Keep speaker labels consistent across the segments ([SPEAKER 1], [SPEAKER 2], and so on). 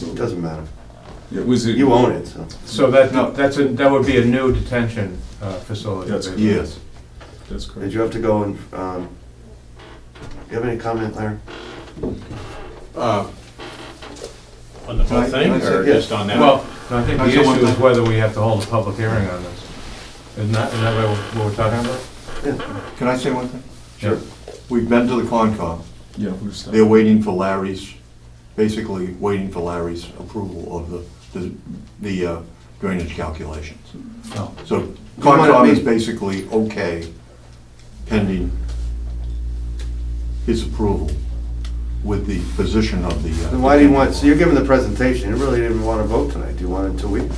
[SPEAKER 1] So
[SPEAKER 2] Doesn't matter.
[SPEAKER 1] it was. a-
[SPEAKER 2] You own it, so.
[SPEAKER 3] So that, that's a, that would be a new detention uh, facility.
[SPEAKER 1] That's-
[SPEAKER 2] Yes.
[SPEAKER 1] That's
[SPEAKER 2] Did
[SPEAKER 1] correct.
[SPEAKER 2] you have to go and, um, you have any comment, Larry?
[SPEAKER 4] Uh, On the whole
[SPEAKER 2] Can I-
[SPEAKER 4] thing,
[SPEAKER 2] can I say-
[SPEAKER 4] or
[SPEAKER 2] yeah.
[SPEAKER 4] just on that?
[SPEAKER 3] Well, I think the
[SPEAKER 4] Actually, one
[SPEAKER 3] issue is
[SPEAKER 4] thing-
[SPEAKER 3] whether we have to hold a public hearing on this. Isn't that, isn't that what we're- what we're talking about?
[SPEAKER 5] Can I say one thing?
[SPEAKER 3] Sure.
[SPEAKER 5] We've been to the Concom.
[SPEAKER 1] Yeah, we're stuck.
[SPEAKER 5] They're waiting for Larry's, basically waiting for Larry's approval of the, the- the uh, drainage calculations.
[SPEAKER 3] No.
[SPEAKER 5] So
[SPEAKER 2] want it
[SPEAKER 5] Concom is
[SPEAKER 2] made-
[SPEAKER 5] basically okay pending his approval with the position of the. uh,
[SPEAKER 2] Then why do you want, so you're giving the presentation, you really didn't want to vote tonight, do you want it two weeks?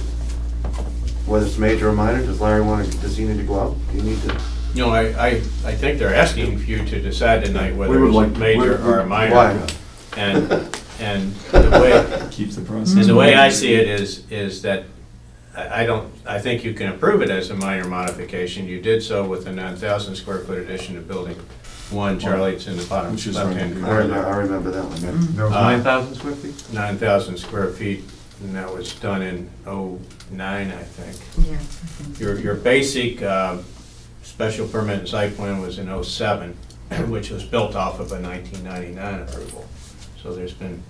[SPEAKER 2] Whether it's major or minor, does Larry want, to? does he need to go out? Do you need to?
[SPEAKER 4] No, I, I, I think they're asking for you to decide tonight
[SPEAKER 5] We
[SPEAKER 4] whether
[SPEAKER 5] would like
[SPEAKER 4] it's
[SPEAKER 5] to-
[SPEAKER 4] major
[SPEAKER 5] we're-
[SPEAKER 4] or minor.
[SPEAKER 2] Why?
[SPEAKER 4] And, and the way,
[SPEAKER 1] Keep the process.
[SPEAKER 4] and the way I see it is, is that I, I don't, I think you can approve it as a minor modification. You did so with a nine thousand square foot addition to building one, Charlie, it's in the bottom
[SPEAKER 1] Which is right
[SPEAKER 4] left-hand
[SPEAKER 1] here.
[SPEAKER 2] I remember,
[SPEAKER 4] corner.
[SPEAKER 2] I remember that one.
[SPEAKER 3] There was
[SPEAKER 4] Uh,
[SPEAKER 3] nine thousand square feet?
[SPEAKER 4] Nine thousand square feet, and that was done in oh nine, I think.
[SPEAKER 6] Yeah.
[SPEAKER 4] Your, your basic um, special permit and site plan was in '07, which was built off of a 1999 approval. So there's been,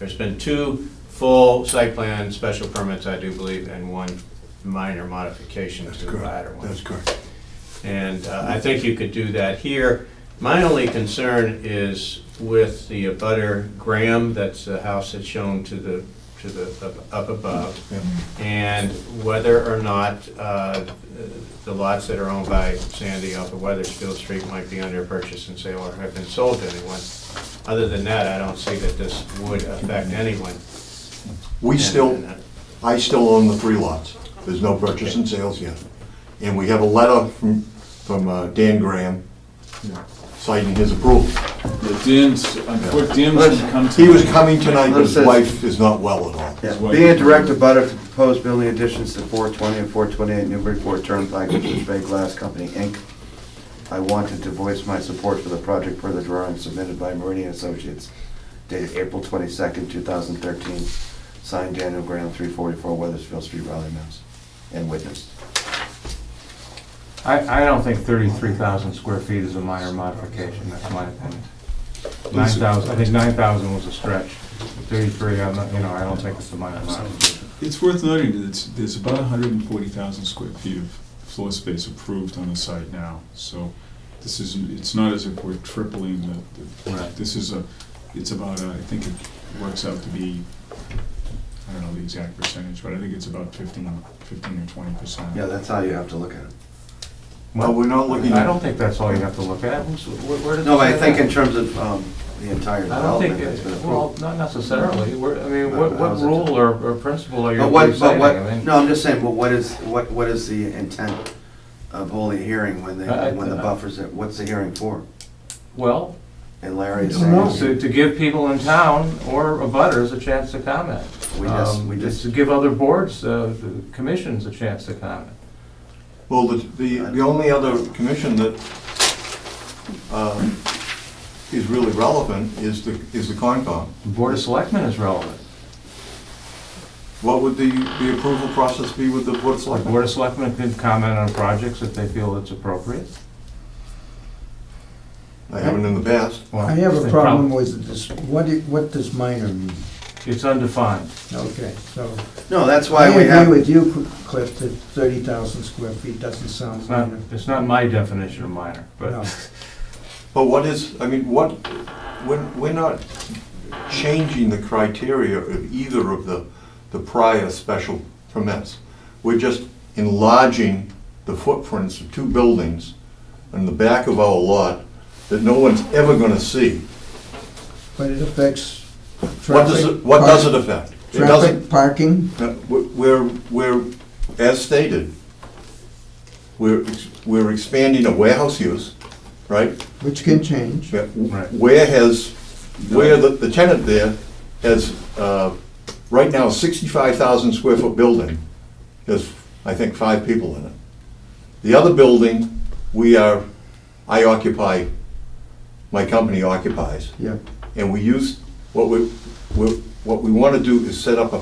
[SPEAKER 4] there's been two full site plan special permits, I do believe, and one minor modification
[SPEAKER 5] That's
[SPEAKER 4] to the latter
[SPEAKER 5] correct.
[SPEAKER 4] one.
[SPEAKER 5] That's correct.
[SPEAKER 4] And uh, I think you could do that here. My only concern is with the abutter Graham, that's the house that's shown to the, to the, up- up above.
[SPEAKER 5] Yeah.
[SPEAKER 4] And whether or not uh, the lots that are owned by Sandy off of Weathersfield Street might be under purchase and sale or have been sold to anyone. Other than that, I don't see that this would affect anyone. uh,
[SPEAKER 5] We still, I still own the three lots. There's no purchase and sales yet. And we have a letter from, from uh, Dan Graham
[SPEAKER 1] Yeah.
[SPEAKER 5] citing his approval.
[SPEAKER 1] The uh, Dan's, unfortunately, Dan was gonna come to.
[SPEAKER 5] He was coming tonight, but his
[SPEAKER 2] Let's-
[SPEAKER 5] wife is not well at all.
[SPEAKER 2] Yeah, Being a direct abutter to proposed building additions to 420 and 428 Newburyport Turnpike, which is Bay Glass Company, Inc., I wanted to voice my support for the project per the drawing submitted by Meridian Associates dated April 22nd, 2013, signed Daniel Graham, 344 Weathersfield Street, Raleigh, Mass., and witnessed.
[SPEAKER 3] Uh, I, I don't think thirty-three thousand square feet is a minor modification, that's my opinion. Nine thousand, I think nine thousand was a stretch. Thirty-three, I'm not, you know, I don't think it's a minor modification.
[SPEAKER 1] It's worth noting that it's, there's about hundred and forty thousand square feet of floor space approved on the site now. So this is, it's not as if we're tripling the, the-
[SPEAKER 3] Right.
[SPEAKER 1] this is a, it's about, uh, I think it works out to be, I don't know the exact percentage, but I think it's about fifteen, fifteen or twenty percent.
[SPEAKER 2] Yeah, that's how you have to look at it.
[SPEAKER 5] Well, we're not looking
[SPEAKER 3] I
[SPEAKER 5] at,
[SPEAKER 3] don't think that's all you have to look at. Who's- where- where did
[SPEAKER 2] No, but I
[SPEAKER 3] this-
[SPEAKER 2] think in terms of um, the entire
[SPEAKER 3] I don't think,
[SPEAKER 2] development that's
[SPEAKER 3] it-
[SPEAKER 2] been
[SPEAKER 3] well,
[SPEAKER 2] approved.
[SPEAKER 3] not necessarily, We're- I mean,
[SPEAKER 2] No,
[SPEAKER 3] what, what
[SPEAKER 2] how's it-
[SPEAKER 3] rule or, or principle are you
[SPEAKER 2] But what, but
[SPEAKER 3] reciting? I
[SPEAKER 2] what,
[SPEAKER 3] mean,
[SPEAKER 2] no, I'm just saying, but what is, what, what is the intent of holding a hearing when they,
[SPEAKER 3] I- I-
[SPEAKER 2] when the buffers, are- what's the hearing for?
[SPEAKER 3] Well,
[SPEAKER 2] And Larry is
[SPEAKER 3] to,
[SPEAKER 2] saying,
[SPEAKER 3] to give people in town or abutters a chance to comment.
[SPEAKER 2] we just,
[SPEAKER 3] Um,
[SPEAKER 2] we
[SPEAKER 3] To
[SPEAKER 2] just,
[SPEAKER 3] give other boards, uh, the commissions a chance to comment.
[SPEAKER 5] well, the, the the only other commission that um, is really relevant is the, is the Concom.
[SPEAKER 3] The Board of Selectmen is relevant.
[SPEAKER 5] What would the, the approval process be with the Board of
[SPEAKER 3] The
[SPEAKER 5] Selectmen?
[SPEAKER 3] Board of Selectmen can comment on projects if they feel it's appropriate.
[SPEAKER 5] I haven't in the past.
[SPEAKER 3] Well,
[SPEAKER 7] I have
[SPEAKER 3] the
[SPEAKER 7] a problem with this, what, i- what does minor mean?
[SPEAKER 3] It's undefined.
[SPEAKER 7] Okay, so,
[SPEAKER 2] no, that's
[SPEAKER 7] I
[SPEAKER 2] why we
[SPEAKER 7] agree
[SPEAKER 2] have,
[SPEAKER 7] with you, Cl- Cliff, that thirty thousand square feet doesn't sound
[SPEAKER 3] It's not,
[SPEAKER 7] minor.
[SPEAKER 3] it's not my definition of minor,
[SPEAKER 7] No,
[SPEAKER 3] but
[SPEAKER 5] But what is, I mean, what, we're, we're not changing the criteria of either of the, the prior special permits. We're just enlarging the footprints of two buildings in the back of our lot that no one's ever gonna see.
[SPEAKER 7] but it affects
[SPEAKER 5] What does it,
[SPEAKER 7] traffic.
[SPEAKER 5] what does it
[SPEAKER 7] park-
[SPEAKER 5] affect? It
[SPEAKER 7] Traffic,
[SPEAKER 5] doesn't,
[SPEAKER 7] parking,
[SPEAKER 5] no, we're, we're, as stated, we're, we're expanding a warehouse use, right?
[SPEAKER 7] which can change.
[SPEAKER 5] Yeah, w-
[SPEAKER 3] Right.
[SPEAKER 5] Where has, where the the tenant there has, uh, right now, 65,000 square foot building, has, I think, five people in it. The other building, we are, I occupy, my company occupies,
[SPEAKER 7] Yeah,
[SPEAKER 5] and we use, what we, we're What we want to do is set up a